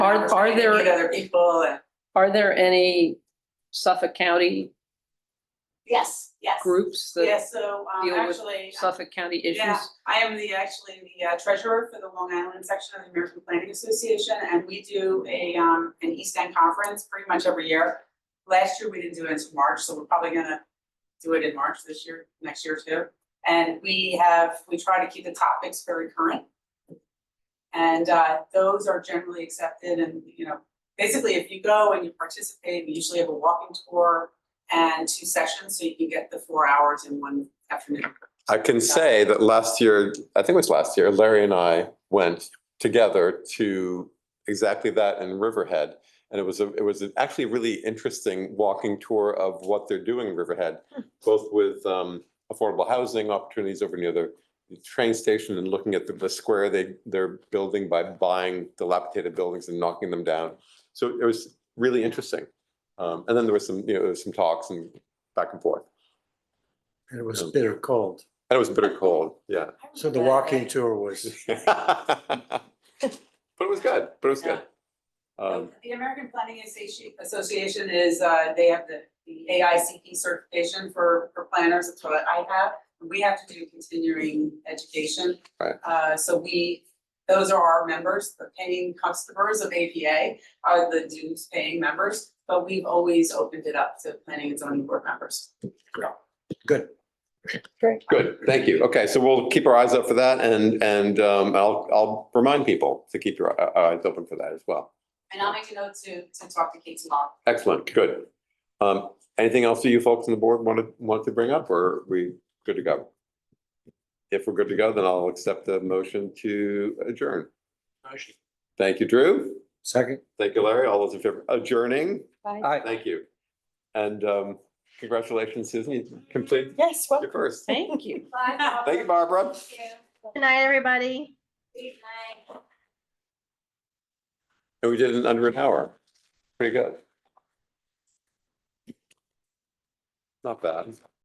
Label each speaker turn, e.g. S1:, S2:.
S1: Are- are
S2: trying to
S1: there-
S2: Meet other people and,
S1: Are there any Suffolk County
S2: yes, yes.
S1: groups
S2: Yeah,
S1: that
S2: so, um,
S1: deal with
S2: actually,
S1: Suffolk County
S2: yeah,
S1: issues?
S2: I am the, actually the uh, treasurer for the Long Island section of the American Planning Association, and we do a, um, an East End conference pretty much every year. Last year, we didn't do it until March, so we're probably gonna do it in March this year, next year too. And we have, we try to keep the topics very current. And, uh, those are generally accepted and, you know, basically if you go and you participate, we usually have a walking tour and two sessions, so you can get the four hours in one afternoon.
S3: I can say that last year, I think it was last year, Larry and I went together to exactly that in Riverhead. And it was a, it was actually a really interesting walking tour of what they're doing in Riverhead, both with um affordable housing opportunities over near the train station and looking at the the square they they're building by buying dilapidated buildings and knocking them down. So it was really interesting. Um and then there was some, you know, there was some talks and back and forth.
S4: And it was
S3: Um,
S4: bitter cold.
S3: And it was bitter cold, yeah.
S4: So the walking tour was,
S3: But it was good, but it was good.
S2: So
S3: Um,
S2: The American Planning Associ- Association is, uh, they have the, the AICP certification for, for planners, that's what I have. We have to do continuing education.
S3: Right.
S2: Uh, so we, those are our members, the paying customers of APA are the dues paying members, but we've always opened it up to planning and zoning board members.
S4: good.
S3: good, thank you. Okay, so we'll keep our eyes up for that and, and, um, I'll, I'll remind people to keep your uh, eyes open for that as well.
S2: And I'll make a note to, to talk to Kate tomorrow.
S3: Excellent, good. Um, anything else that you folks on the board want to, want to bring up or are we good to go? If we're good to go, then I'll accept the motion to adjourn. Thank you, Drew.
S4: Second?
S3: Thank you, Larry. All those in favor, adjourning?
S4: Aye.
S3: Thank you. And um, congratulations, Susan, you completed
S5: Yes, well,
S3: your first.
S1: Thank you.
S3: Thank you, Barbara.
S6: Good night, everybody.
S3: And we did it in under an hour. Pretty good. Not bad.